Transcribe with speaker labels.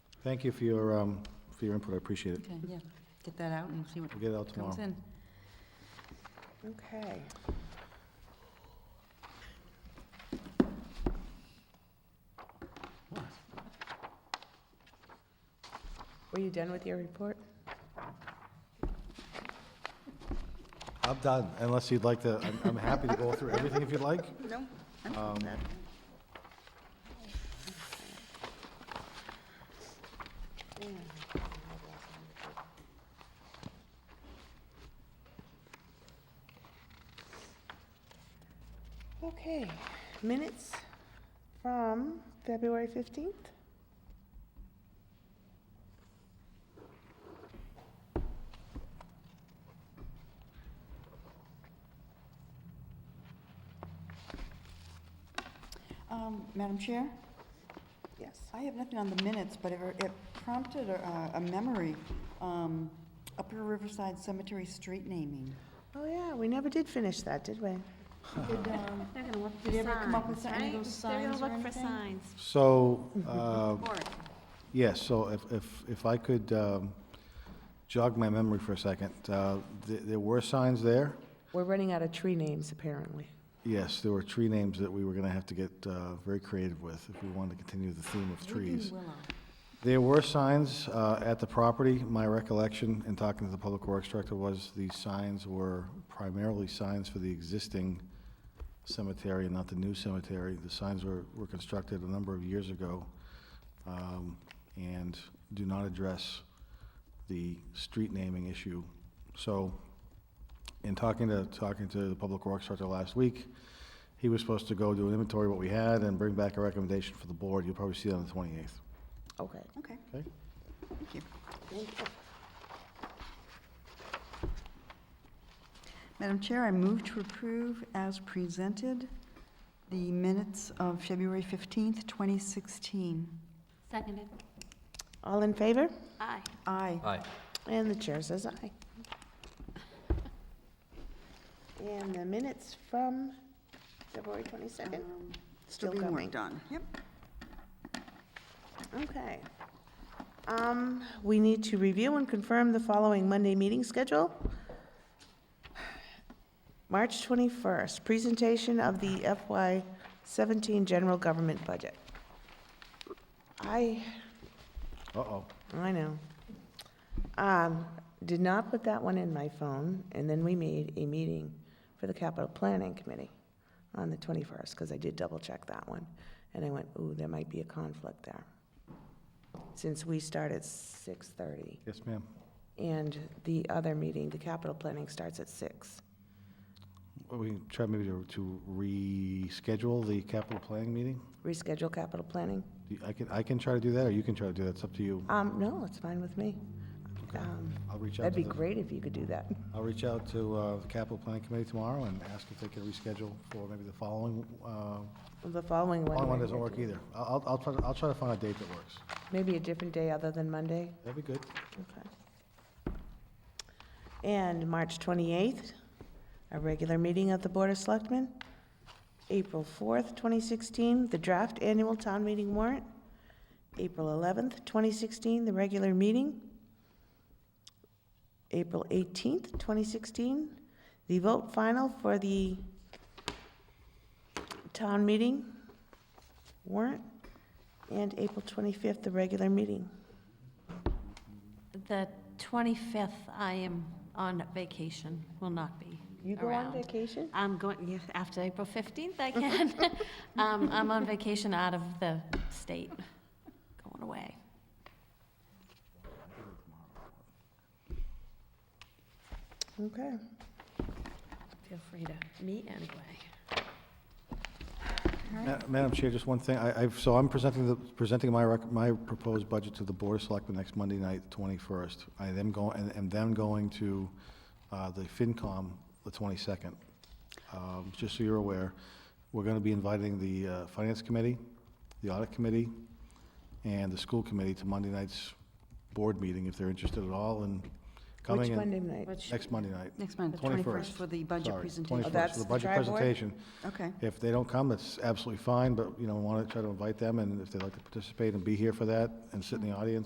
Speaker 1: Thank you for your, um, for your input, I appreciate it.
Speaker 2: Okay, yeah, get that out and see what
Speaker 1: We'll get it out tomorrow.
Speaker 2: comes in.
Speaker 3: Okay. Were you done with your report?
Speaker 1: I'm done, unless you'd like to, I'm, I'm happy to go through everything if you'd like.
Speaker 3: No. Okay, minutes from February 15th?
Speaker 4: Um, Madam Chair,
Speaker 3: Yes.
Speaker 4: I have nothing on the minutes, but it it prompted a a memory, um, Upper Riverside Cemetery street naming.
Speaker 3: Oh, yeah, we never did finish that, did we?
Speaker 4: Did, um,
Speaker 5: They're gonna look for
Speaker 4: Did
Speaker 5: signs,
Speaker 4: you ever come up with some- any of
Speaker 5: right?
Speaker 4: those
Speaker 5: They're
Speaker 4: signs or
Speaker 5: gonna look for
Speaker 4: anything?
Speaker 5: signs.
Speaker 1: So, uh,
Speaker 5: Or,
Speaker 1: yes, so if, if, if I could, um, jog my memory for a second, uh, th- there were signs there.
Speaker 3: We're running out of tree names, apparently.
Speaker 1: Yes, there were tree names that we were gonna have to get, uh, very creative with if we wanted to continue the theme of trees.
Speaker 2: Willow.
Speaker 1: There were signs uh, at the property. My recollection in talking to the Public Works Director was these signs were primarily signs for the existing cemetery and not the new cemetery. The signs were, were constructed a number of years ago um, and do not address the street naming issue. So in talking to, talking to the Public Works Director last week, he was supposed to go do an inventory of what we had and bring back a recommendation for the board. You'll probably see that on the 28th.
Speaker 3: Okay.
Speaker 4: Okay,
Speaker 1: Okay.
Speaker 4: thank you. Madam Chair, I move to approve as presented the minutes of February 15th, 2016.
Speaker 5: seconded,
Speaker 3: All in favor?
Speaker 5: aye.
Speaker 4: Aye.
Speaker 6: Aye.
Speaker 3: And the chair says aye. And the minutes from February 22nd?
Speaker 4: Um,
Speaker 3: Still
Speaker 4: Still being
Speaker 3: coming.
Speaker 4: worked on. Yep.
Speaker 3: Okay. Um, We need to review and confirm the following Monday meeting schedule. March 21st, presentation of the FY17 general government budget. I,
Speaker 1: Uh-oh.
Speaker 3: I know. Um, Did not put that one in my phone, and then we made a meeting for the capital planning committee on the 21st, because I did double-check that one, and I went, ooh, there might be a conflict there, since we start at 6:30,
Speaker 1: Yes, ma'am.
Speaker 3: and the other meeting, the capital planning, starts at 6.
Speaker 1: Well, We can try maybe to to reschedule the capital planning meeting?
Speaker 3: Reschedule capital planning?
Speaker 1: Do you- I can, I can try to do that, or you can try to do that, it's up to you.
Speaker 3: Um, No, it's fine with me. Um,
Speaker 1: I'll reach out
Speaker 3: That'd
Speaker 1: to
Speaker 3: be
Speaker 1: the,
Speaker 3: great if you could do that.
Speaker 1: I'll reach out to uh, the capital planning committee tomorrow and ask if they can reschedule for maybe the following, uh,
Speaker 3: The following one.
Speaker 1: following one
Speaker 3: we're
Speaker 1: doesn't
Speaker 3: gonna
Speaker 1: work
Speaker 3: do-
Speaker 1: either. I'll, I'll- I'll try, to- I'll try to find a date that works.
Speaker 3: Maybe a different day other than Monday?
Speaker 1: That'd be good.
Speaker 3: Okay. And March 28th, a regular meeting of the Board of Selectmen. April 4th, 2016, the draft annual town meeting warrant. April 11th, 2016, the regular meeting. April 18th, 2016, the vote final for the town meeting warrant. And April 25th, the regular meeting.
Speaker 5: The 25th, I am on vacation, will not be around.
Speaker 3: You go on vacation?
Speaker 5: I'm going, yeah, after April 15th, I can. Um, I'm on vacation out of the state, going away.
Speaker 3: Okay.
Speaker 5: Feel free to meet anyway.
Speaker 1: Ma- Madam Chair, just one thing, I, I've, so I'm presenting the, presenting my rec, my proposed budget to the Board of Selectmen next Monday night, twenty-first. I am going, and, and then going to, uh, the FinCom the twenty-second. Um, just so you're aware, we're gonna be inviting the, uh, Finance Committee, the Audit Committee, and the School Committee to Monday night's board meeting, if they're interested at all in coming.
Speaker 3: Which
Speaker 1: and-
Speaker 3: Monday night?
Speaker 1: Next Monday night.
Speaker 4: Next month, the
Speaker 1: 21st.
Speaker 4: 21st, for the budget
Speaker 1: Sorry,
Speaker 4: presentation.
Speaker 1: 21st,
Speaker 3: Oh, that's
Speaker 1: for the
Speaker 3: the
Speaker 1: budget
Speaker 3: tri board?
Speaker 1: presentation.
Speaker 4: Okay.
Speaker 1: If they don't come, that's absolutely fine, but, you know, want to try to invite them, and if they'd like to participate and be here for that and sit in the audience,